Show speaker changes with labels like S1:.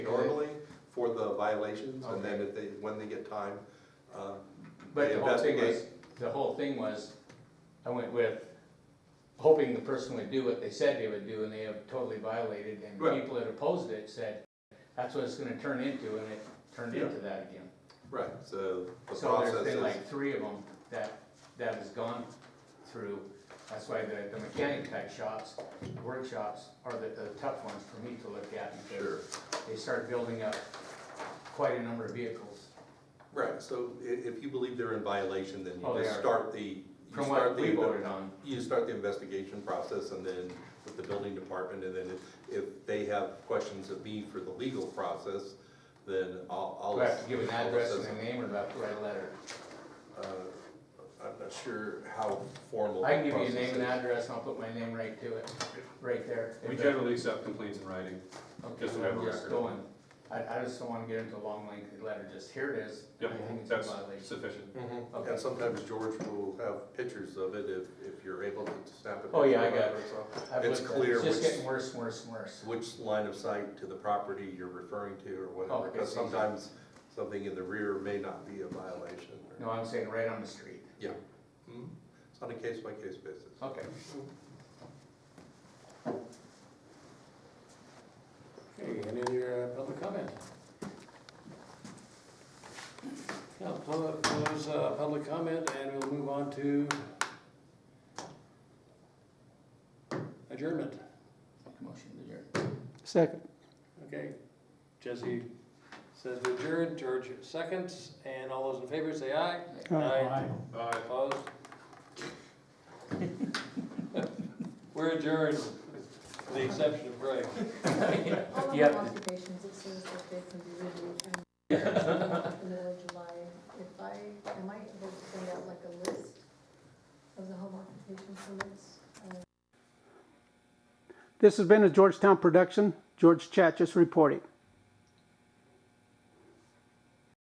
S1: for the violations, and then
S2: Okay.
S1: if they, when they get time, uh,
S2: But
S1: they
S2: the whole thing was,
S1: investigate.
S2: the whole thing was, I went with hoping the person would do what they said they would do and they have totally violated and
S1: Right.
S2: people that opposed it said, that's what it's gonna turn into and it turned
S1: Yeah.
S2: into that again.
S1: Right, so the
S2: So
S1: process
S2: there's been
S1: is,
S2: like three of them that, that has gone through. That's why the, the mechanic type shops, workshops are the, the tough ones for me to look at
S1: sure,
S2: because they start building up quite a number of vehicles.
S1: right, so i- if you believe they're in violation, then
S2: Oh,
S1: you
S2: they
S1: just
S2: are.
S1: start the, you
S2: From
S1: start
S2: what
S1: the
S2: we voted on,
S1: you start the investigation process and then with the building department, and then if, if they have questions of me for the legal process, then I'll, I'll.
S2: do I have to give an
S1: I'll
S2: address and
S1: assess-
S2: a name or do I have to write a letter?
S1: uh, I'm not sure how formal.
S2: I can give you a
S1: the
S2: name and
S1: process
S2: address, and I'll put my name right to it, right there.
S3: We
S2: If
S3: generally accept complaints in writing.
S2: that- okay,
S3: just to have a
S2: I'm just
S3: record.
S2: going- I, I just don't wanna get into a long lengthy letter, just here it is. I
S3: Yep,
S2: think it's a
S3: that's
S2: violation.
S3: sufficient.
S1: is. Mhm.
S2: Mm-hmm. Okay.
S1: And sometimes George will have pictures of it if, if you're able to snap a picture.
S2: Oh, yeah, I
S1: of
S2: got it.
S1: so
S2: I've
S1: It's
S2: looked at it.
S1: clear
S2: It's just
S1: which-
S2: getting worse, and worse, and worse.
S1: Which line of sight to the property you're referring to or
S2: Oh,
S1: whatever,
S2: okay,
S1: because
S2: so you-
S1: sometimes something in the rear may not be a violation. or-
S2: No, I'm saying right on the street.
S1: Mhm. It's on a case-by-case basis.
S2: Okay.
S4: Okay, any other uh, public comment? Now, pu- close uh, public comment and we'll move on to adjournment.
S2: Motion to adjourn.
S5: Second.
S4: Okay, Jesse says we adjourn, George seconds, and all those in favor say aye.
S3: Uh,
S4: Opposed? We're adjourned, with the exception of Greg.
S6: All of
S2: Yeah.
S6: our occupations, it says that they can be removed in the middle of July. If I, am I able to send out like a list of the home occupation permits? Uh,
S5: This has been a Georgetown production. George Chat just reporting.